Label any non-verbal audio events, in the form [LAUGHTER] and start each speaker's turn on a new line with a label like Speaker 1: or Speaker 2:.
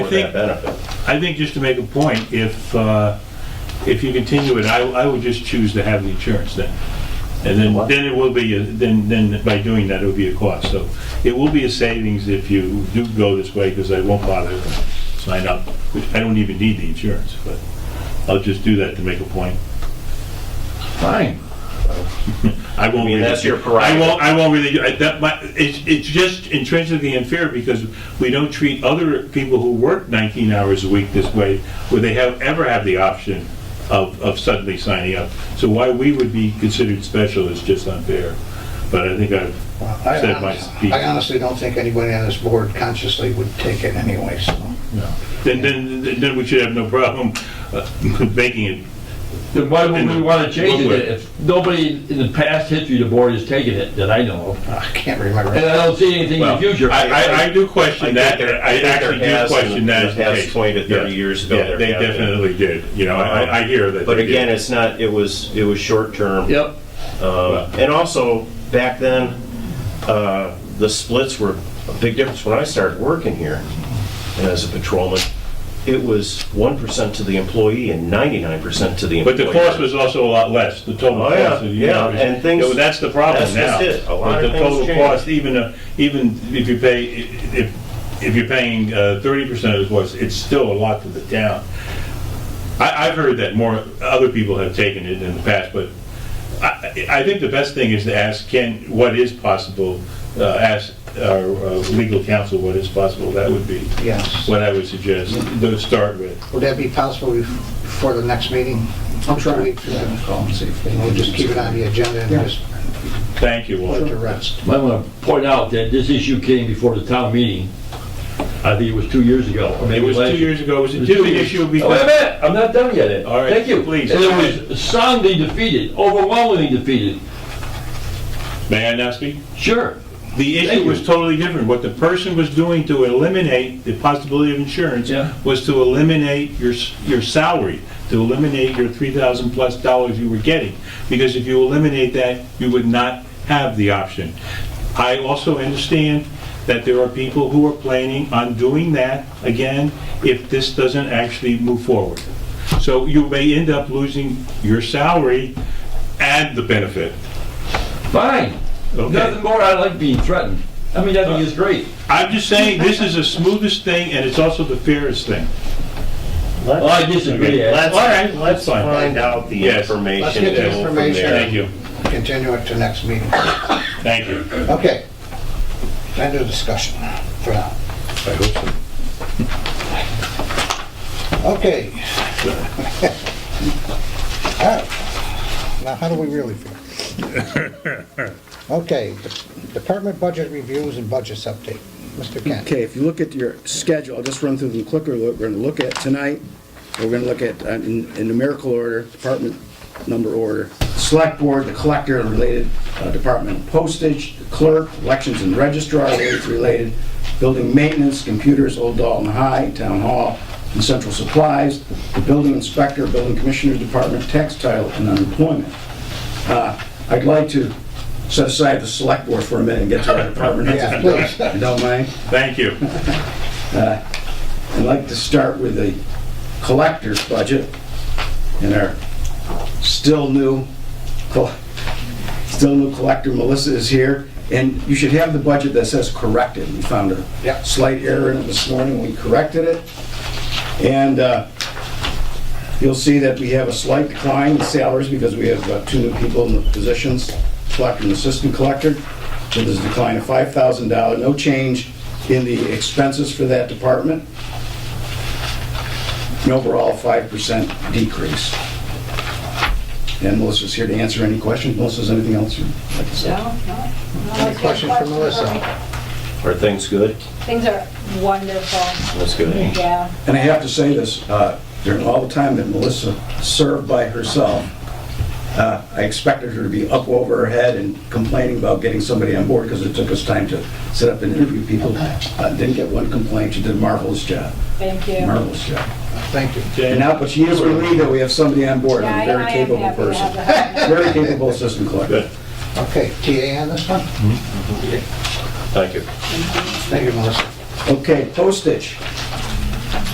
Speaker 1: think-
Speaker 2: that benefit.
Speaker 1: I think just to make a point, if, uh, if you continue it, I, I would just choose to have the insurance then. And then,
Speaker 2: What?
Speaker 1: then it will be, a- then, then by doing that, it will be a cost. So it will be a savings if you do go this way, because I won't bother to sign up, which I don't even need the insurance, but I'll just do that to make a point. Fine. I won't.
Speaker 2: I mean,
Speaker 1: really-
Speaker 2: that's your
Speaker 1: I
Speaker 2: prerogative.
Speaker 1: won't, I won't really, I- that, my, it's, it's just intrinsically unfair because we don't treat other people who work 19 hours a week this way, where they have, ever have the option of, of suddenly signing up. So why we would be considered special is just unfair. But I think I've
Speaker 3: I
Speaker 1: said my
Speaker 3: honestly-
Speaker 1: piece.
Speaker 3: I honestly don't think anybody on this board consciously would take it anyway, so.
Speaker 1: No. Then, then, then we should have no problem uh, [LAUGHS] making it.
Speaker 4: Then why would we want to change
Speaker 1: Woodward.
Speaker 4: it if nobody in the past history of the board has taken it that I know of?
Speaker 3: I can't remember.
Speaker 4: And I don't see anything in the
Speaker 1: Well,
Speaker 4: future.
Speaker 1: I, I, I do
Speaker 2: I
Speaker 1: question
Speaker 2: think
Speaker 1: that,
Speaker 2: there- I
Speaker 1: I
Speaker 2: think there
Speaker 1: actually do
Speaker 2: has
Speaker 1: question
Speaker 2: in
Speaker 1: that
Speaker 2: the
Speaker 1: as the
Speaker 2: past
Speaker 1: case.
Speaker 2: 20 to 30
Speaker 1: Yeah.
Speaker 2: years ago,
Speaker 1: Yeah,
Speaker 2: there
Speaker 1: They
Speaker 2: have been.
Speaker 1: definitely did, you know, I, I hear that.
Speaker 2: But
Speaker 1: they did.
Speaker 2: again, it's not, it was, it was short-term.
Speaker 4: Yep.
Speaker 2: Um, And also, back then, uh, the splits were a big difference when I started working here as a patrolman. It was 1% to the employee and 99% to the
Speaker 1: But
Speaker 2: employer.
Speaker 1: the cost was also a lot less, the total
Speaker 2: Oh,
Speaker 1: cost.
Speaker 2: yeah,
Speaker 1: of the
Speaker 2: yeah,
Speaker 1: average.
Speaker 2: and things-
Speaker 1: Yeah, well, That's the problem
Speaker 2: that's
Speaker 1: now.
Speaker 2: just it. A lot
Speaker 1: But
Speaker 2: of
Speaker 1: the
Speaker 2: things
Speaker 1: total
Speaker 2: change.
Speaker 1: cost, even, uh, even if you pay, if, if you're paying uh, 30% of the cost, it's still a lot to the town. I, I've heard that more, other people have taken it in the past, but I, I think the best thing is to ask Ken what is possible, uh, ask our uh, legal counsel what is possible. That would be
Speaker 3: Yes.
Speaker 1: what I would suggest, to start with.
Speaker 3: Would that be possible bef- before the next meeting? I'm sure. We'll just keep it on the agenda and just
Speaker 1: Thank you all.
Speaker 3: put it to rest.
Speaker 4: I want to point out that this issue came before the town meeting. I think it was two years ago. or
Speaker 1: It
Speaker 4: maybe
Speaker 1: was
Speaker 4: last
Speaker 1: two
Speaker 4: year.
Speaker 1: years ago, it was
Speaker 4: It
Speaker 1: a
Speaker 4: was two
Speaker 1: two
Speaker 4: years.
Speaker 1: issue
Speaker 4: Oh, Wait a
Speaker 1: because,
Speaker 4: minute, I'm not done yet. Ed.
Speaker 1: All right,
Speaker 4: Thank you.
Speaker 1: please.
Speaker 4: And it was soundly defeated, overwhelmingly defeated.
Speaker 1: may I now speak?
Speaker 4: Sure.
Speaker 1: The
Speaker 4: Thank
Speaker 1: issue
Speaker 4: you.
Speaker 1: was totally different. What the person was doing to eliminate the possibility of insurance
Speaker 4: Yeah.
Speaker 1: was to eliminate your, s- your salary, to eliminate your three thousand plus dollars you were getting. Because if you eliminate that, you would not have the option. I also understand that there are people who are planning on doing that again if this doesn't actually move forward. So you may end up losing your salary and the benefit.
Speaker 4: Fine.
Speaker 1: Okay.
Speaker 4: Nothing more. I like being threatened. I mean, I think it's great.
Speaker 1: I'm just saying, this is the smoothest thing, and it's also the fairest thing.
Speaker 4: Well, I disagree. Ed.
Speaker 2: Let's,
Speaker 1: All right,
Speaker 2: let's
Speaker 1: fine.
Speaker 2: find out the
Speaker 1: Yes.
Speaker 2: information.
Speaker 3: Let's get the
Speaker 2: and go from
Speaker 3: information.
Speaker 2: there.
Speaker 1: Thank you,
Speaker 3: Continue it to next meeting.
Speaker 1: thank you.
Speaker 3: Okay. End of discussion for now.
Speaker 1: I hope so.
Speaker 3: Okay. [LAUGHS] All right. Now, how do we really feel?
Speaker 1: [LAUGHS]
Speaker 3: Okay, de- department budget reviews and budgets update. Mr. Kent.
Speaker 5: Okay, if you look at your schedule, I'll just run through them quicker, what we're gonna look at tonight, we're gonna look at, uh, in in numerical order, department number order, select board, the collector, and related uh, department postage, the clerk, elections and registrar, rates related, building maintenance, computers, Old Dalton High, town hall, and central supplies, the building inspector, building commissioner's department, textile, and unemployment. Uh, I'd like to set aside the select board for a minute and get to our department heads, if you don't- if you don't mind.
Speaker 1: Thank you.
Speaker 5: I'd like to start with the collector's budget and our still new, col- still new collector Melissa is here. And you should have the budget that says corrected. We found a
Speaker 3: Yep.
Speaker 5: slight error in it this morning. We corrected it. And uh, you'll see that we have a slight decline in salaries because we have uh, two new people in the positions, collector and assistant collector. So there's a decline of $5,000, no change in the expenses for that department. An overall 5% decrease. And Melissa's here to answer any questions. Melissa, is anything else you'd like to say?
Speaker 3: Any questions for Melissa?
Speaker 2: Are things good?
Speaker 6: Things are wonderful,
Speaker 2: That's good.
Speaker 6: yeah.
Speaker 5: And I have to say this, uh, during all the time that Melissa served by herself, uh, I expected her to be up over her head and complaining about getting somebody on board because it took us time to sit up and interview people. Uh, Didn't get one complaint. She did a marvelous job.
Speaker 6: Thank you.
Speaker 5: Marvelous job.
Speaker 3: Thank you.
Speaker 5: And now, but she is relieved that we have somebody on board,
Speaker 6: Yeah,
Speaker 5: a
Speaker 6: I-
Speaker 5: very
Speaker 6: I am
Speaker 5: capable
Speaker 6: happy to have
Speaker 5: person.
Speaker 6: the help.
Speaker 5: Very capable assistant collector.
Speaker 3: Okay, TA on this one?
Speaker 2: Thank you.
Speaker 3: Thank you, Melissa.
Speaker 5: Okay, postage.